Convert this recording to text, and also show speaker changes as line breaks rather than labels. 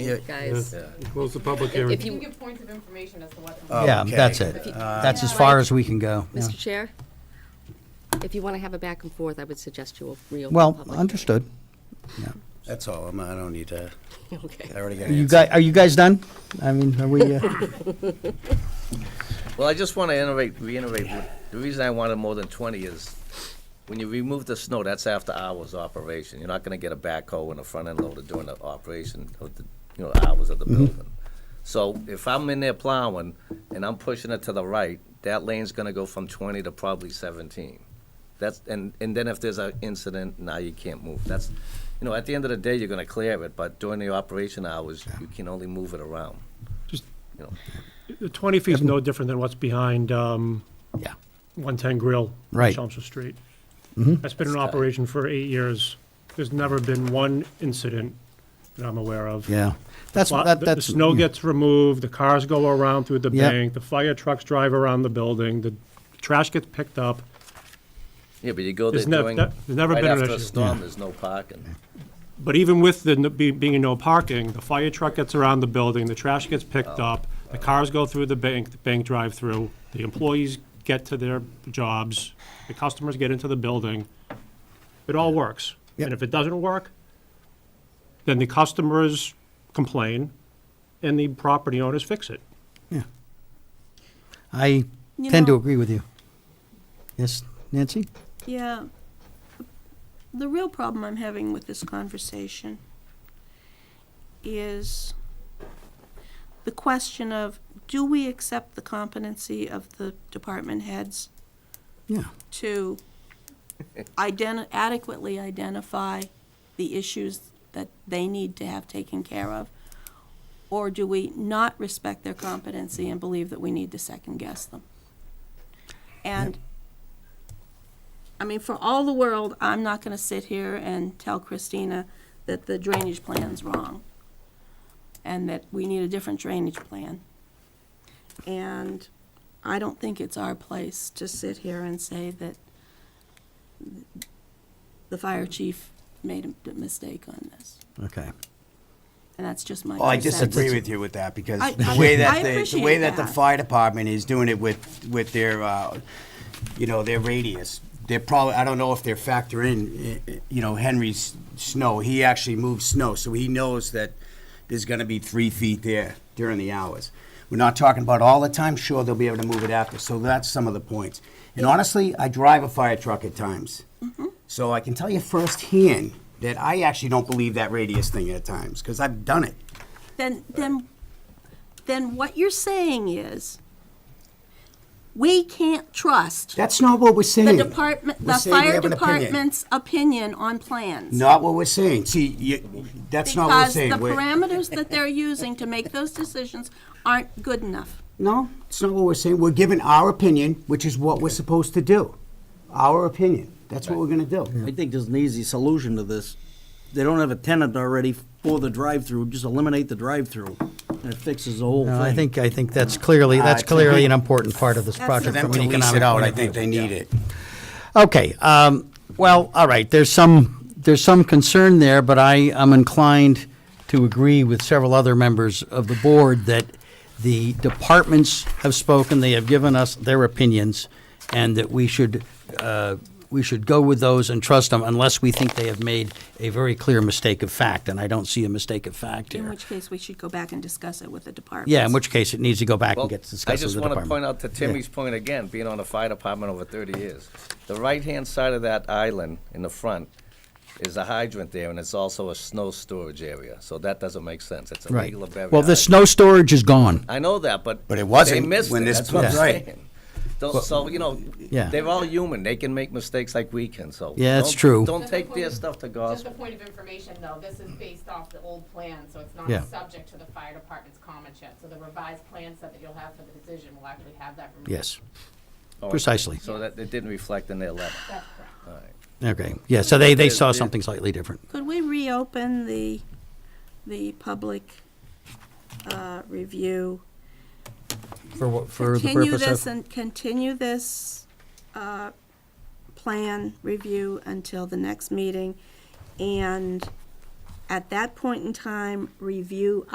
Yeah.
guys.
Close the public hearing.
If
You can
you,
give points of information as to what.
Oh,
Yeah,
okay. Uh,
that's it.
If you-
That's as
Yeah.
far as we can go. yeah.
Mr. Chair, if you want to have a back and forth, I would suggest you reopen.
Well,
public.
understood. Yeah.
That's all. I'm, I don't need to,
Okay.
I already got an
You
answer.
guys, are you guys done? I mean, are we, uh,
Well, I just want to innovate, reiterate, what- the reason I wanted more than twenty is, when you remove the snow, that's after hours operation. You're not gonna get a backhoe and a front end loader during the operation of the, you know, hours of the building. So if I'm in there plowing and I'm pushing it to the right, that lane's gonna go from twenty to probably seventeen. That's, and, and then if there's an incident, now you can't move. That's, you know, at the end of the day, you're gonna clear it, but during the operation hours, you can only move it around.
Just-
You know.
The 20 feet's no different than what's behind um,
yeah,
110 Grill. on
Right. Mm-hmm.
Chelmsford Street. That's been in operation for eight years. There's never been one incident that I'm aware of.
yeah. That's,
Lot-
that,
the-
that's.
The snow
mm,
gets removed, the cars go around through the
Yep.
bank, the fire trucks drive around the building, the trash gets picked up.
Yeah, but you go there
There's nev-
during,
that-
right
there's never been an
after a
issue.
storm, there's no parking.
But even with the, n- be- being no parking, the fire truck gets around the building, the trash gets picked up, the cars go through the bank, the bank drive-through, the employees get to their jobs, the customers get into the building. It all works.
Yep.
And if it doesn't work, then the customers complain and the property owners fix it.
I
You
tend to
know-
agree with you. Yes, Nancy?
Yeah. The real problem I'm having with this conversation is the question of, do we accept the competency of the department heads
Yeah,
to identi- adequately identify the issues that they need to have taken care of? Or do we not respect their competency and believe that we need to second guess them? And, I mean, for all the world, I'm not gonna sit here and tell Christina that the drainage plan's wrong and that we need a different drainage plan. And I don't think it's our place to sit here and say that the fire chief made a mistake on this.
okay.
And that's just my.
Well, Oh, I
two cents.
disagree with you with that because
I-
the
I-
way that
I
the, the
appreciate
way that the
that.
fire department is doing it with, with their, uh, you know, their radius, they're probably, I don't know if they're factoring, i- i- you know, Henry's snow. He actually moves snow, so he knows that there's gonna be three feet there during the hours. We're not talking about all the time. Sure, they'll be able to move it after. So that's some of the points. And honestly, I drive a fire truck at times.
Mm-hmm.
So I can tell you firsthand that I actually don't believe that radius thing at times because I've done it.
Then, then, then what you're saying is, we can't trust
That's not what we're saying.
the department,
Hmm. We're
the
saying we
fire
have an opinion.
department's opinion on plans.
Not what we're saying. See, you, that's not what we're saying. We're-
Because the parameters that they're using to make those decisions aren't good enough.
No, it's not what we're saying. We're giving our opinion, which is what we're supposed to do. Our opinion. That's what we're gonna do.
I think there's an easy solution to this. They don't have a tenant already for the drive-through, just eliminate the drive-through, and it fixes the whole thing.
No, I think, I think that's clearly, that's
it's a
clearly
big-
an important part of this
That's
project
For
from an economic point of view.
they need it.
Okay, um, well, all right, there's some, there's some concern there, but I am inclined to agree with several other members of the board that the departments have spoken, they have given us their opinions, and that we should, uh, we should go with those and trust them unless we think they have made a very clear mistake of fact, and I don't see a mistake of fact
In
here.
which case, we should go back and discuss it with the department.
Yeah, in which case it needs to go back
Well,
and get
I
discussed with
just
the
want to
department.
point out to Timmy's point again, being on the fire department over thirty years. The right-hand side of that island in the front is a hydrant there, and it's also a snow storage area, so that doesn't make sense. It's a
Right.
regular burial.
Well, the snow storage is gone.
I know that, but.
But it wasn't
They missed
when
it,
this
that's what I'm
was- Right.
saying. Don't, so, you know,
Yeah.
they're all human, they can make mistakes like we can, so.
Yeah, that's
don't-
true.
Don't take their stuff to
Just a
Uh,
gospel.
point of information, though, this is based off the old plan, so it's not
Yeah.
subject to the fire department's comment yet. So the revised plan set that you'll have for the decision will actually have that removed.
Yes,
Oh,
precisely.
So that, it didn't reflect in their letter.
That's correct.
Okay, yeah, so they, they saw
Yeah.
something slightly different.
Could we reopen the, the public uh, review?
For what, for the
Continue
purpose
this
of?
and continue this uh, plan review until the next meeting. And at that point in time, review